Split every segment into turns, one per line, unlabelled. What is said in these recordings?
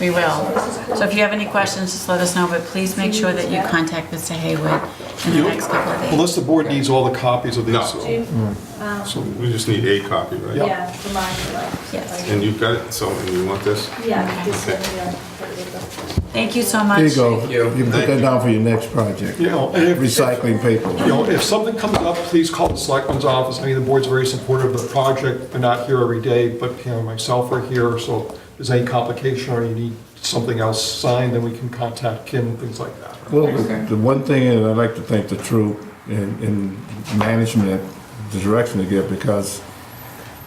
We will. So if you have any questions, just let us know, but please make sure that you contact Mr. Haywood in the
You-
next couple of days.
Unless the board needs all the copies of these.
No.
so-
Do you,
Mm.
um,
So,
We just need a copy, right?
yeah, the mine, like.
Yes.
And you've got it, so and you want this?
Yeah, this
Okay.
one, yeah. there you go.
Thank you so much.
There you go.
you.
You can put that down for your next project.
you know, and if-
Recycling
You
paper.
know, if something comes up, please call the selectman's office. I mean, the board's very supportive of the project. We're not here every day, but, you know, myself are here, so if there's any complication or you need something else signed, then we can contact Kim, things like that.
Well, the- the one thing, and I'd like to thank the troop and, and management, the direction they give, because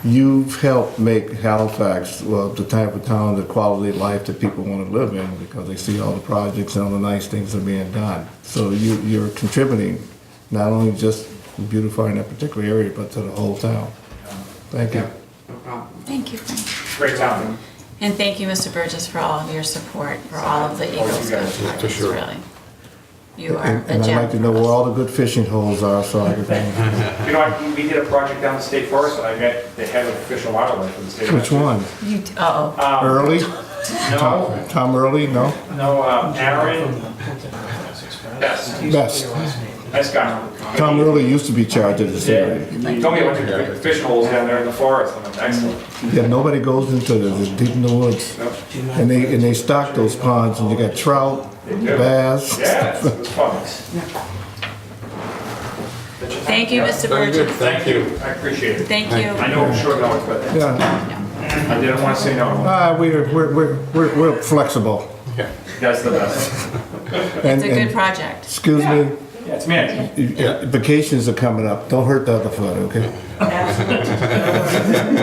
you've helped make Halifax, well, the type of town, the quality of life that people want to live in, because they see all the projects and all the nice things that are being done. So you, you're contributing, not only just beautifying that particular area, but to the whole town. Thank you.
No problem.
Thank you, Frank.
Great topic.
And thank you, Mr. Burgess, for all of your support, for all of the Eagle
Always you
Scout
guys, yeah,
for
projects,
sure.
really. You are
And
a
and I'd like to know where
gem.
all the good fishing holes are, so I can,
You know, I- we did a project down the state forest, and I met the head of Fish and Wildlife in the state. of
which one?
You, uh-oh,
Early?
No,
Tom Tom Early, no?
no, um, Aaron, Best.
Best.
best guy.
Tom Early used to be charged at this
Yeah,
area.
He told me about the fish holes down there in the forest, I'm like, excellent.
Yeah, nobody goes into the, the deep in the woods.
No,
And they, and they stock those ponds, and you got trout, bass.
Yeah, it was fun.
thank you, Mr.
Very good,
Burgess.
thank you.
I appreciate it.
Thank you.
I know I'm short notice, but
Yeah,
I didn't want to say no.
ah, we're, we're, we're, we're we're flexible.
That's the best.
It's a good
And, and,
project.
excuse me,
Yeah, it's management.
vacations are coming up, don't hurt the other foot, okay?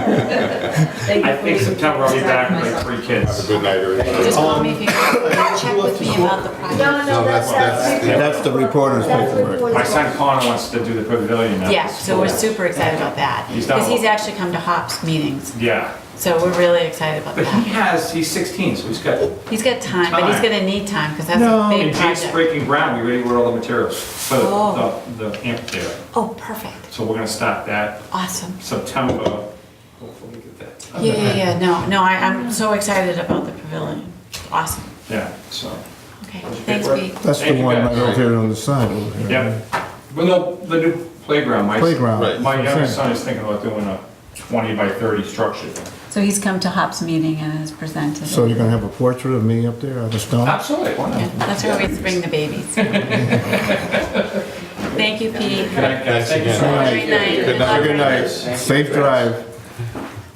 I think September I'll be back with like three
Have a
kids.
good night, everybody.
Just call me if you, check with me about the project.
No, no, that's, that's.
That's the reporter's
That's the
paperwork.
reporter's
My son Connor wants to do the pavilion now.
Yeah, so we're super excited about that.
He's done
Because he's
well.
actually come to HOPS meetings,
Yeah,
so we're really excited about
but he
that.
has, he's 16, so he's got
He's got time, but he's
Time.
gonna need time, because that's a
No.
big
And Jake's
project.
breaking ground, we already ordered all the materials for
Oh.
the- the, the amphitheater.
Oh, perfect,
So we're gonna start that
awesome.
September. Hopefully get that.
Yeah, yeah, yeah, no, no, I, I'm so excited about the pavilion. Awesome.
Yeah, so,
Okay, thanks, Pete.
That's the
Thank you,
one right
guys.
over here on the side over here.
yeah. Well, no, the new playground, my.
Playground.
Right.
That's
My
what I'm
youngest
saying.
son is thinking about doing a 20 by 30 structure. thing.
So he's come to Hop's meeting and has presented.
So you're gonna have a portrait of me up there on the stone?
Absolutely, why
Yeah,
not?
That's where we bring the babies. Thank you, Pete.
Thanks
Thank you so
again.
much.
Great night.
Good night.
Good night, safe drive.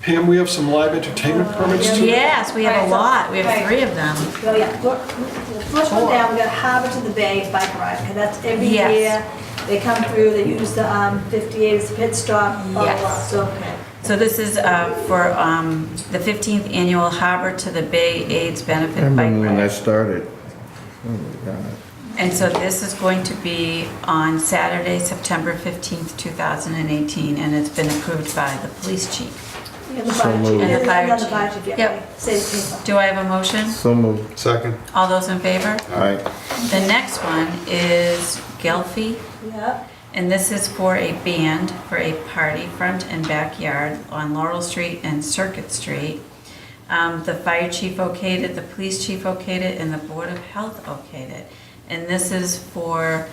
Pam, we have some live entertainment permits too.
Yes, we have a lot, we have
Right.
three of them.
Oh, yeah, Look, the first one down, we got Harbor to the Bay Bike Ride, and that's every
Yes.
year. They come through, they use the um, 58 as a pit stop, blah, blah, blah,
Yes.
so, okay.
So this is uh, for um, the 15th Annual Harbor to the Bay AIDS
I
Benefit Bike
remember when that
Ride.
started. Oh my God.
And so this is going to be on Saturday, September 15th, 2018, and it's been approved by the police chief.
And the
So
fire chief,
moved.
And the fire
another
chief.
fire chief, yeah,
Yep.
right, save people.
Do I have a motion?
So moved.
Second,
All those in favor?
All right.
The next one is Gelfie,
Yeah,
and this is for a band for a party front and backyard on Laurel Street and Circuit Street. Um, The fire chief okayed it, the police chief okayed it, and the Board of Health okayed it. And this is for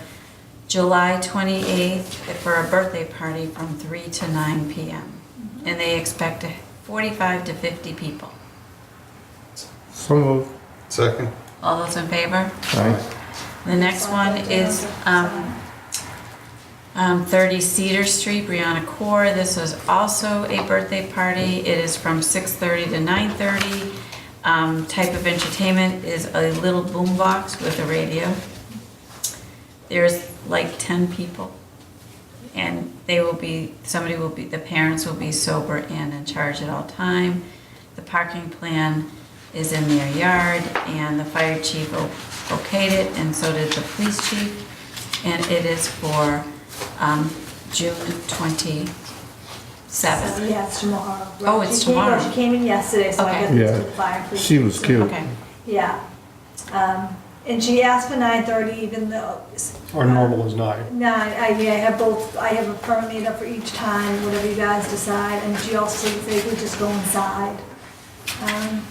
July 28th for a birthday party from 3 to 9 PM. And they expect 45 to 50 people.
So moved.
second.
All those in favor?
All right.
The next one is um, um, 30 Cedar Street, Brianna Core. This is also a birthday party. It is from 6:30 to 9:30. Um, Type of entertainment is a little boombox with a radio. There's like 10 people. And they will be, somebody will be, the parents will be sober and in charge at all time. The parking plan is in their yard, and the fire chief o- okayed it, and so did the police chief. And it is for um, June 27th.
yeah, it's tomorrow.
Oh, it's
She came-
tomorrow.
She came in yesterday, so
Okay.
I got this to
Yeah.
the fire. police.
She was cute.
Okay,
Yeah. Um, And she asked for 9:30, even though,
Our normal is nine.
No, I, I- yeah, I have both, I have a firm made up for each time, whatever you guys decide, and she also said we could just go inside. Um,